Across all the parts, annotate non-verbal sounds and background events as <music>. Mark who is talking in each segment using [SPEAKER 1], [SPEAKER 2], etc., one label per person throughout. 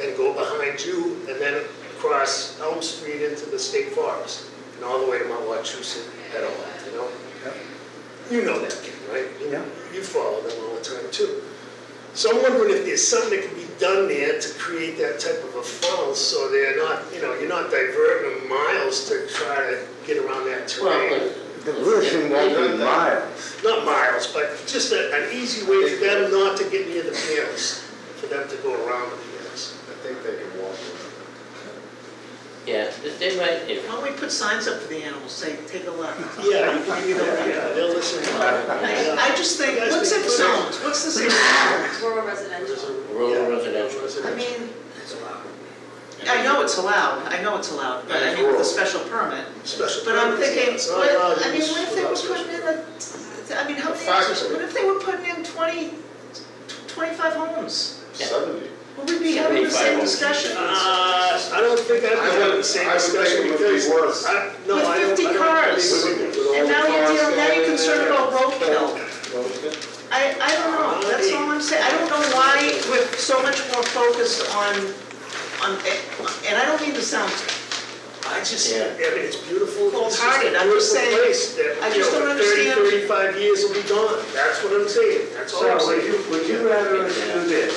[SPEAKER 1] and go behind you and then across Elm Street into the state forest and all the way to Mount Wachusett at all, you know? You know that, Ken, right? You-
[SPEAKER 2] Yeah.
[SPEAKER 1] You follow them all the time too. So I'm wondering if there's something that can be done there to create that type of a funnel so they're not, you know, you're not diverting them miles to try to get around that terrain.
[SPEAKER 3] Well,
[SPEAKER 2] The version won't be miles.
[SPEAKER 1] Not miles, but just a- an easy way for them not to get near the panels, for them to go around the panels.
[SPEAKER 4] I think they can walk
[SPEAKER 3] but, yeah, they- they might, if,
[SPEAKER 5] Why don't we put signs up for the animals, say, take a left?
[SPEAKER 1] Yeah, <laughs> you can, you know, yeah, they'll listen.
[SPEAKER 5] I, I just think, what's in zones, what's the zone?
[SPEAKER 6] rural residential.
[SPEAKER 3] rural residential.
[SPEAKER 5] I mean, I know it's allowed, I know it's allowed, but I mean, with a special permit.
[SPEAKER 1] Special.
[SPEAKER 5] But I'm thinking,
[SPEAKER 1] It's not
[SPEAKER 5] what,
[SPEAKER 1] allowed
[SPEAKER 5] I mean,
[SPEAKER 1] use
[SPEAKER 5] what if they were
[SPEAKER 1] without
[SPEAKER 5] putting in a, I mean, how many,
[SPEAKER 4] Factory.
[SPEAKER 5] what if they were putting in twenty, tw- twenty-five homes?
[SPEAKER 3] Yeah.
[SPEAKER 4] seventy.
[SPEAKER 5] Would we be having
[SPEAKER 3] 75
[SPEAKER 5] the same
[SPEAKER 3] homes.
[SPEAKER 5] discussion?
[SPEAKER 1] Uh, I don't think I'd be having the same
[SPEAKER 4] I would think
[SPEAKER 1] discussion
[SPEAKER 4] it would be
[SPEAKER 1] because.
[SPEAKER 4] worse.
[SPEAKER 1] I- no,
[SPEAKER 5] With
[SPEAKER 1] I don't- I
[SPEAKER 5] 50
[SPEAKER 1] don't
[SPEAKER 5] cars.
[SPEAKER 1] agree with you.
[SPEAKER 5] And now you're, dealing- now you're concerned about roadkill.
[SPEAKER 4] Well,
[SPEAKER 5] I, I don't know, that's all I'm saying, I don't know why we're so much more focused on, on, and I don't mean to sound,
[SPEAKER 1] I just, I
[SPEAKER 3] Yeah.
[SPEAKER 1] mean, it's beautiful. It's just a
[SPEAKER 5] Cold-hearted, I'm just
[SPEAKER 1] beautiful
[SPEAKER 5] saying,
[SPEAKER 1] place that,
[SPEAKER 5] I
[SPEAKER 1] you
[SPEAKER 5] just
[SPEAKER 1] know,
[SPEAKER 5] don't
[SPEAKER 1] Thirty,
[SPEAKER 5] understand.
[SPEAKER 1] thirty-five years will be gone. That's what I'm saying. That's all I'm
[SPEAKER 2] So would
[SPEAKER 1] saying.
[SPEAKER 2] you, would you rather us do this?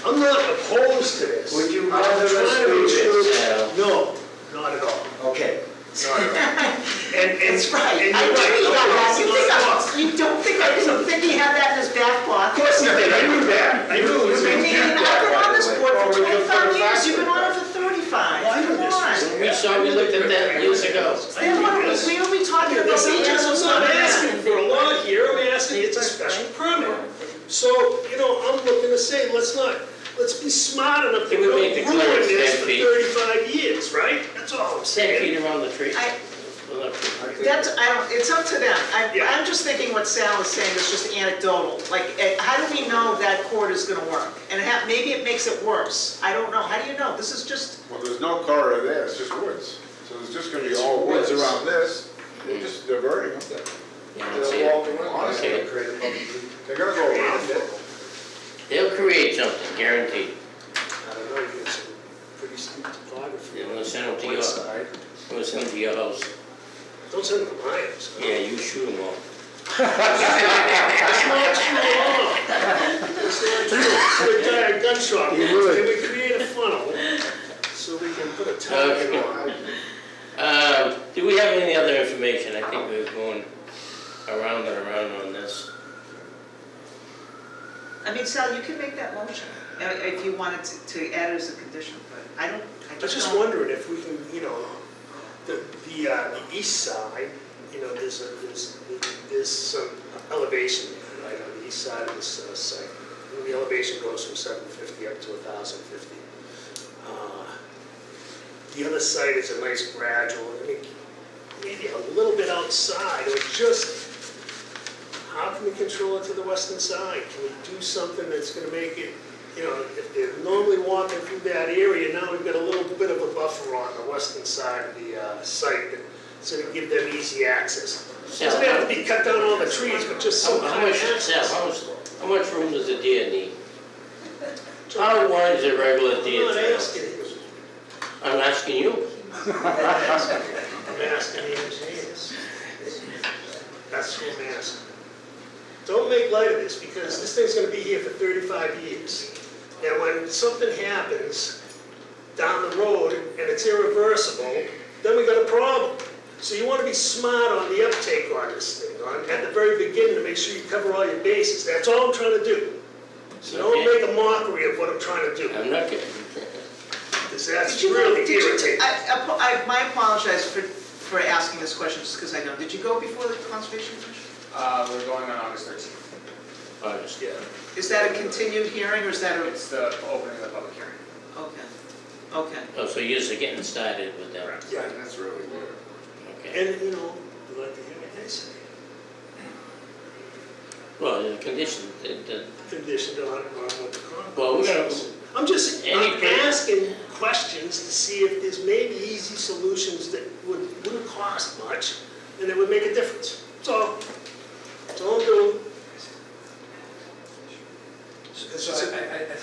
[SPEAKER 1] I'm not opposed to this.
[SPEAKER 2] Would you
[SPEAKER 1] I'm
[SPEAKER 2] rather us
[SPEAKER 1] trying to
[SPEAKER 2] do
[SPEAKER 1] make sure-
[SPEAKER 3] this?
[SPEAKER 1] No, not at all.
[SPEAKER 2] Okay.
[SPEAKER 1] Not at all. And, and.
[SPEAKER 5] that's right, I
[SPEAKER 1] and
[SPEAKER 5] do
[SPEAKER 1] you're
[SPEAKER 5] think I
[SPEAKER 1] right.
[SPEAKER 5] have, you think I, you don't think I didn't think he had that in his back
[SPEAKER 1] Of
[SPEAKER 5] pocket?
[SPEAKER 1] course you did. I knew that. I knew it was.
[SPEAKER 5] I mean, I've been on this board
[SPEAKER 4] Or we
[SPEAKER 5] for
[SPEAKER 4] could put
[SPEAKER 5] twenty-five
[SPEAKER 4] a
[SPEAKER 5] years, you've been
[SPEAKER 4] factory.
[SPEAKER 5] on it for thirty-five, come on.
[SPEAKER 3] We saw, we looked at that years ago.
[SPEAKER 5] Then what, are we, we only talking about
[SPEAKER 7] Yes,
[SPEAKER 5] the
[SPEAKER 7] I'm just-
[SPEAKER 5] animals
[SPEAKER 7] I'm
[SPEAKER 5] on
[SPEAKER 7] not
[SPEAKER 5] that.
[SPEAKER 7] asking for a lot here, I'm asking, it's a special permit. So,
[SPEAKER 1] You know, I'm looking to say, let's not, let's be smart enough that
[SPEAKER 3] It
[SPEAKER 1] we
[SPEAKER 3] would
[SPEAKER 1] don't
[SPEAKER 3] make the
[SPEAKER 1] ruin
[SPEAKER 3] clearance
[SPEAKER 1] this
[SPEAKER 3] 10
[SPEAKER 1] for
[SPEAKER 3] feet.
[SPEAKER 1] thirty-five years, right? That's all I'm
[SPEAKER 3] Ten
[SPEAKER 1] saying.
[SPEAKER 3] feet around the tree.
[SPEAKER 5] I,
[SPEAKER 3] Well, that's-
[SPEAKER 4] I think-
[SPEAKER 5] That's, I don't, it's up to them. I,
[SPEAKER 1] Yeah.
[SPEAKER 5] I'm just thinking what Sal was saying is just anecdotal. Like, eh, how do we know that court is gonna work? And ha maybe it makes it worse. I don't know. How do you know? This is just,
[SPEAKER 4] there's no corridor there, it's just woods. So there's just gonna be all woods around this, they're just diverting them.
[SPEAKER 3] you know, see
[SPEAKER 4] They'll walk
[SPEAKER 3] it.
[SPEAKER 4] around, honestly,
[SPEAKER 3] Okay.
[SPEAKER 4] they're gonna go around it.
[SPEAKER 3] They'll create something, guaranteed.
[SPEAKER 1] I don't know, you get some pretty steep topography.
[SPEAKER 3] Yeah, well, send them to
[SPEAKER 1] One
[SPEAKER 3] your-
[SPEAKER 1] side.
[SPEAKER 3] We'll send them to your house.
[SPEAKER 1] Don't send them to my house.
[SPEAKER 3] Yeah, you shoot them all.
[SPEAKER 1] That's not true at all. That's not true. We're tired of gun shop.
[SPEAKER 2] You would.
[SPEAKER 1] Can we create a funnel so we can put a tag on?
[SPEAKER 3] <laughs> Um, do we have any other information? I think we're going around and around on this.
[SPEAKER 5] I mean, Sal, you can make that motion eh, if you wanted to, to add it as a condition, but I don't, I
[SPEAKER 1] I was
[SPEAKER 5] just
[SPEAKER 1] just
[SPEAKER 5] don't.
[SPEAKER 1] wondering if we can, you know, the, the, uh, the east side, you know, there's, a- there's, there's some elevation, there, right, on the east side of this uh, site. And The elevation goes from seven fifty up to thousand fifty. Uh, The other site is a nice gradual, I mean, maybe a little bit outside, or just, how can we control it to the western side? Can we do something that's gonna make it you know, if they're normally walking through that area, now we've got a little bit of a buffer on the western side of the uh, site, that- so to give them easy access.
[SPEAKER 3] Sal,
[SPEAKER 1] Doesn't have to be cut down all the trees, but just some
[SPEAKER 3] how- how
[SPEAKER 1] kind of
[SPEAKER 3] much, Sal,
[SPEAKER 1] access.
[SPEAKER 3] how much, how much room does a deer need? E? How wide's a regular
[SPEAKER 1] I'm
[SPEAKER 3] deer
[SPEAKER 1] not
[SPEAKER 3] trail?
[SPEAKER 1] asking you,
[SPEAKER 3] I'm asking you.
[SPEAKER 1] I'm asking the engineers. That's who I'm asking. Don't make light of this, because this thing's gonna be here for thirty-five years. And when something happens down the road and it's irreversible, then we got a problem. So you wanna be smart on the uptake on this thing, on, at the very beginning, to make sure you cover all your bases. That's all I'm trying to do. So don't
[SPEAKER 3] Okay.
[SPEAKER 1] make a mockery of what I'm trying to do,
[SPEAKER 3] I'm not getting.
[SPEAKER 1] because that's
[SPEAKER 5] Did you go,
[SPEAKER 1] really
[SPEAKER 5] did you,
[SPEAKER 1] irritating.
[SPEAKER 5] I, I po- I, my apologize for, for asking this question, just because I know. Did you go before the conservation commission?
[SPEAKER 8] Uh, we're going on August thirteenth.
[SPEAKER 3] honest.
[SPEAKER 1] Yeah,
[SPEAKER 5] Is that a continued hearing or is that a,
[SPEAKER 8] It's the opening of the public hearing.
[SPEAKER 5] okay, okay.
[SPEAKER 3] Oh, so you're just getting started with that,
[SPEAKER 1] yeah.
[SPEAKER 4] And that's really weird.
[SPEAKER 3] okay.
[SPEAKER 1] And, you know, we'd like to hear what they say.
[SPEAKER 3] Well, the condition, the, the,
[SPEAKER 1] conditioned on, on what the contract
[SPEAKER 3] Well, we're gonna-
[SPEAKER 1] says. I'm just, I'm
[SPEAKER 3] Any-
[SPEAKER 1] asking questions to see if there's maybe easy solutions that would, wouldn't cost much, and that would make a difference. That's all, that's all I'm doing.